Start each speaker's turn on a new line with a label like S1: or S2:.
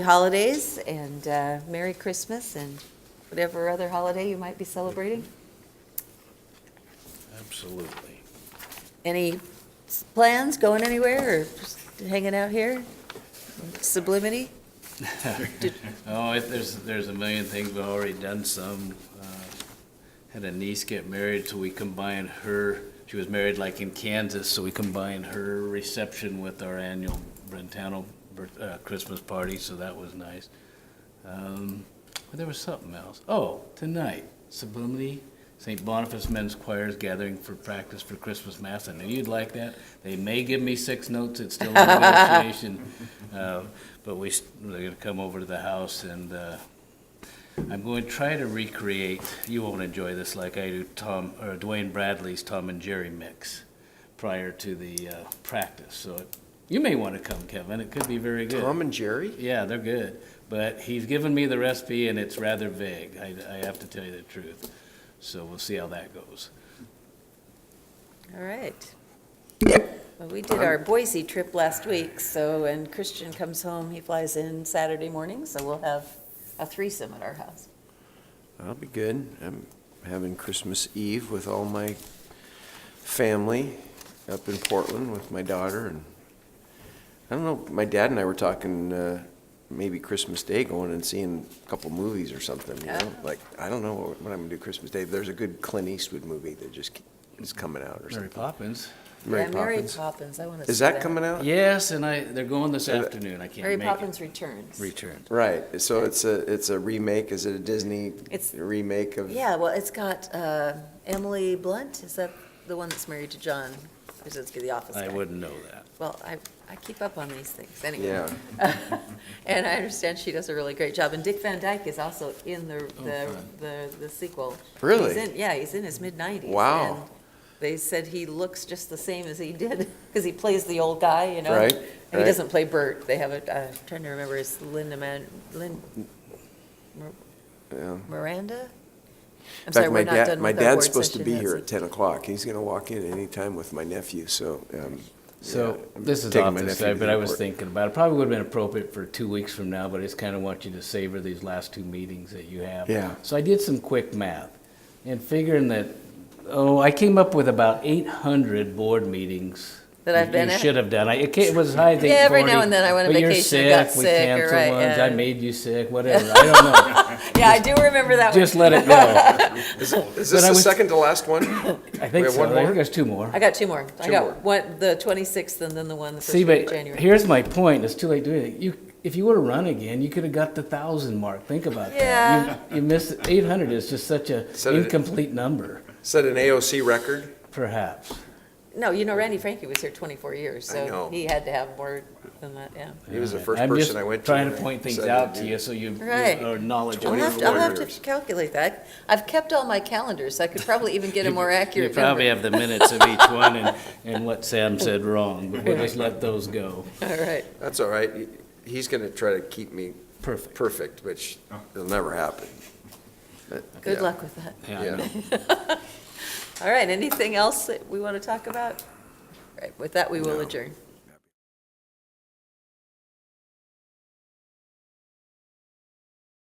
S1: holidays and uh, Merry Christmas and whatever other holiday you might be celebrating.
S2: Absolutely.
S1: Any s- plans, going anywhere or just hanging out here? Sublimity?
S2: Oh, it- there's, there's a million things, we've already done some. Uh, Had a niece get married, so we combined her, she was married like in Kansas, so we combined her reception with our annual Brentano birth- uh, Christmas party, so that was nice. Um, But there was something else. Oh, tonight, Sublimity, St. Boniface Men's Choir is gathering for practice for Christmas Mass. I know you'd like that. They may give me six notes, it's still in negotiation. Uh, But we, s- they're gonna come over to the house and, uh, I'm going to try to recreate, you won't enjoy this like I do, Tom, or Dwayne Bradley's Tom and Jerry mix prior to the, uh, practice. So it- you may wanna come, Kevin, it could be very good.
S3: Tom and Jerry?
S2: Yeah, they're good, but he's given me the recipe and it's rather vague. I, I have to tell you the truth. So we'll see how that goes.
S1: All right. Well, we did our Boise trip last week, so, and Christian comes home, he flies in Saturday morning, so we'll have a threesome at our house.
S3: I'll be good. I'm having Christmas Eve with all my family up in Portland with my daughter and, I don't know, my dad and I were talking, uh, maybe Christmas Day going and seeing a couple movies or something, you know?
S1: Oh.
S3: Like, I don't know what what I'm gonna do Christmas Day, but there's a good Clint Eastwood movie that just ke- is coming out or
S2: Mary
S3: something.
S2: Poppins.
S1: Yeah, Mary Poppins, I want to see that.
S3: Is that coming out?
S2: Yes, and I, they're going this
S3: Uh,
S2: afternoon. I can't
S1: Mary
S2: make it.
S1: Poppins Returns.
S2: Return.
S3: Right, so it's a, it's a remake, is it a Disney
S1: It's-
S3: remake of?
S1: Yeah, well, it's got uh, Emily Blunt, is that the one that's married to John Krasinski, the office
S2: I
S1: guy?
S2: wouldn't know that.
S1: Well, I, I keep up on these things, anyway.
S3: Yeah.
S1: And I understand she does a really great job, and Dick Van Dyke is also in the,
S2: Oh,
S1: the,
S2: fun.
S1: the the sequel.
S3: Really?
S1: He's in- Yeah, he's in his mid-nineties.
S3: Wow.
S1: They said he looks just the same as he did, because he plays the old guy, you know?
S3: Right,
S1: And he
S3: right.
S1: doesn't play Bert, they have a, I'm trying to remember, it's Linda Man, Lin,
S3: Yeah.
S1: Miranda? I'm
S3: In
S1: sorry,
S3: fact,
S1: we're
S3: my
S1: not
S3: dad,
S1: done
S3: my
S1: with our board
S3: dad's supposed to
S1: session
S3: be
S1: yet,
S3: here
S1: so-
S3: at 10 o'clock. He's going to walk in anytime with my nephew, so. um,
S2: So
S3: yeah, I'm
S2: this is
S3: taking
S2: off
S3: my
S2: the
S3: nephew to
S2: side, but I was
S3: airport.
S2: thinking about it. Probably would have been appropriate for two weeks from now, but I just kind of want you to savor these last two meetings that you have.
S3: Yeah.
S2: So I did some quick math and figuring that, oh, I came up with about 800 board meetings.
S1: That I've
S2: you-
S1: been
S2: You
S1: at.
S2: should have done. I, it ca- it was as high as
S1: Yeah, every
S2: 840,
S1: now and then I went on
S2: but you're
S1: vacation and got
S2: sick, we
S1: sick, or uh,
S2: canceled
S1: right,
S2: ones, I
S1: yeah.
S2: made you sick, whatever. I don't know.
S1: Yeah, I do remember that one.
S2: Just let it go.
S3: Is
S2: but
S3: this
S2: I
S3: the
S2: was-
S3: second to last one?
S2: I think
S3: have
S2: so.
S3: one
S2: I
S3: more?
S2: think there's two more.
S1: I got two more. I
S3: Two more.
S1: got one, the 26th and then the one the first
S2: See,
S1: week of
S2: but
S1: January.
S2: here's my point. It's too late to do anything. You, if you would have run again, you could have got the thousand mark. Think about
S1: Yeah.
S2: that. You, you missed eight hundred is just such a
S3: So did-
S2: incomplete number,
S3: Set an AOC record?
S2: perhaps.
S1: No, you know, Randy Frankie was here 24 years,
S3: I
S1: so
S3: know.
S1: he had to have more than that, yeah.
S3: He was the
S2: Alright.
S3: first
S2: Uh, I'm
S3: person
S2: just
S3: I went to.
S2: Trying
S3: when
S2: to
S3: I
S2: point things
S3: decided
S2: out
S3: to
S2: to
S3: do-
S2: you so you
S1: Right.
S2: are knowledgeable.
S1: I'll
S3: Twenty
S1: have to, I'll have
S3: years.
S1: to calculate that. I've kept all my calendars, I could probably even get a more
S2: You
S1: accurate
S2: probably
S1: number.
S2: have the minutes of each one and, and what Sam said wrong, but we'll just let those go.
S1: All right,
S3: That's all right. He- He's going to try to keep me
S2: Perfect.
S3: perfect, which
S2: Oh.
S3: will never happen. But,
S1: good
S3: yeah,
S1: luck with that.
S2: Yeah, I
S3: Yeah.
S2: know.
S1: All right, anything else that we want to talk about? All right, with that, we will
S3: No.
S1: adjourn.